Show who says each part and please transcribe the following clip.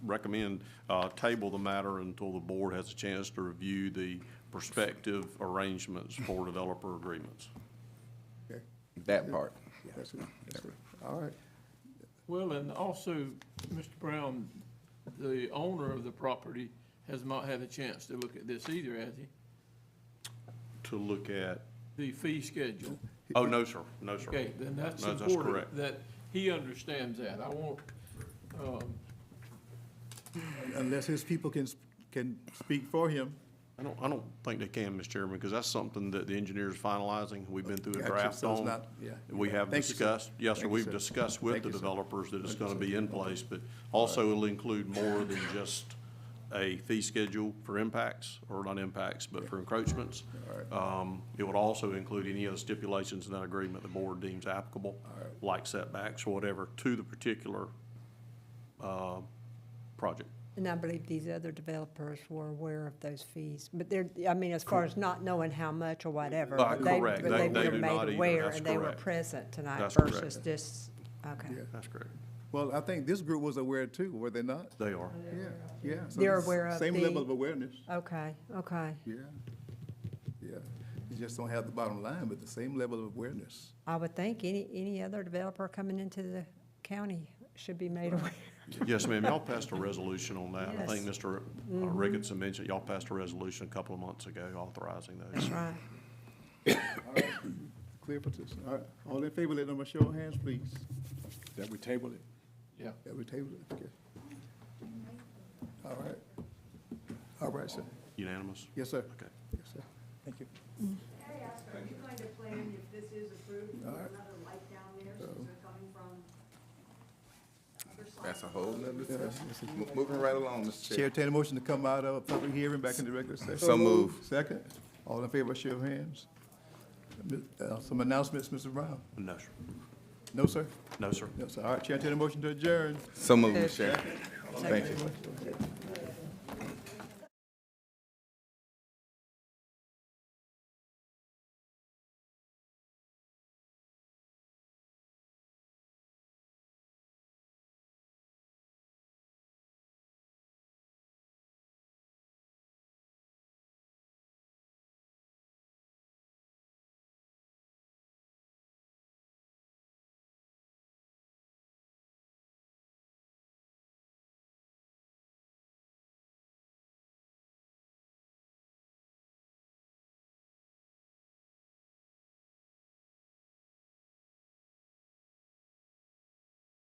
Speaker 1: recommend, uh, table the matter until the board has a chance to review the prospective arrangements for developer agreements.
Speaker 2: Okay,
Speaker 3: that part.
Speaker 2: that's good, that's good. All right,
Speaker 4: Well, and also, Mr. Brown, the owner of the property has not had a chance to look at this either, has he?
Speaker 1: To look at,
Speaker 4: The fee schedule.
Speaker 1: oh, no, sir, no, sir.
Speaker 4: Okay, then that's
Speaker 1: No, that's
Speaker 4: important
Speaker 1: correct.
Speaker 4: that he understands that. I want, um,
Speaker 2: unless his people can, sp- can speak for him.
Speaker 1: I don't, I don't think they can, Mr. Chairman, because that's something that the engineer's finalizing. We've been through a
Speaker 2: Gotcha,
Speaker 1: draft
Speaker 2: so it's
Speaker 1: on.
Speaker 2: not- yeah.
Speaker 1: We have
Speaker 2: Thank you, sir.
Speaker 1: discussed, yes, sir,
Speaker 2: Thank you,
Speaker 1: we've
Speaker 2: sir.
Speaker 1: discussed with
Speaker 2: Thank
Speaker 1: the
Speaker 2: you, sir.
Speaker 1: developers that it's
Speaker 2: Thank you,
Speaker 1: gonna
Speaker 2: sir.
Speaker 1: be in place, but also it'll include more than just a fee schedule for impacts, or not impacts, but for encroachments. Um, it would also include any other stipulations in that agreement the board deems applicable, like setbacks or whatever, to the particular, uh, project.
Speaker 5: And I believe these other developers were aware of those fees, but they're, I mean, as far as not knowing how much or whatever.
Speaker 1: Uh,
Speaker 5: but they-
Speaker 1: correct.
Speaker 5: but
Speaker 1: They- they
Speaker 5: were
Speaker 1: do
Speaker 5: made
Speaker 1: not either.
Speaker 5: aware
Speaker 1: That's
Speaker 5: And they were
Speaker 1: correct.
Speaker 5: present tonight
Speaker 1: That's correct.
Speaker 5: versus just, okay.
Speaker 2: Yeah.
Speaker 1: That's correct.
Speaker 2: Well, I think this group was aware too, were they not?
Speaker 1: They are.
Speaker 2: Yeah, yeah. so
Speaker 5: They're
Speaker 2: it's
Speaker 5: aware of
Speaker 2: Same
Speaker 5: the-
Speaker 2: level of awareness,
Speaker 5: Okay, okay.
Speaker 2: yeah, yeah. You just don't have the bottom line, but the same level of awareness.
Speaker 5: I would think any, any other developer coming into the county should be made aware.
Speaker 1: Yes, ma'am, y'all passed a resolution on that. I think
Speaker 5: Yes.
Speaker 1: Mr. Ricketson mentioned, y'all passed a resolution a couple of months ago authorizing those.
Speaker 5: That's right.
Speaker 2: Clear for this, all right. All in favor, let number show of hands, please. That we table it.
Speaker 4: yeah.
Speaker 2: That we table it, okay. All right. All right, sir.
Speaker 1: Unanimous?
Speaker 2: Yes, sir.
Speaker 1: Okay.
Speaker 2: Yes, sir. Thank you.
Speaker 6: Hey, Oscar, are you going to plan if this is approved, to put
Speaker 2: Alright.
Speaker 6: another light down there since they're coming from other side?
Speaker 3: That's a whole nother discussion. Mo- Moving right along, Mr.
Speaker 2: Chair,
Speaker 3: Chair.
Speaker 2: entertain a motion to come out of public hearing back into regular session.
Speaker 3: So moved.
Speaker 2: Second. All in favor, show of hands. Uh, Some announcements, Mr. Brown?
Speaker 1: No, sir.
Speaker 2: No, sir?
Speaker 1: No, sir.
Speaker 2: No, sir. All right, Chair, entertain a motion to adjourn.
Speaker 3: So moved, Mr. Chair. Thank you.
Speaker 2: Okay.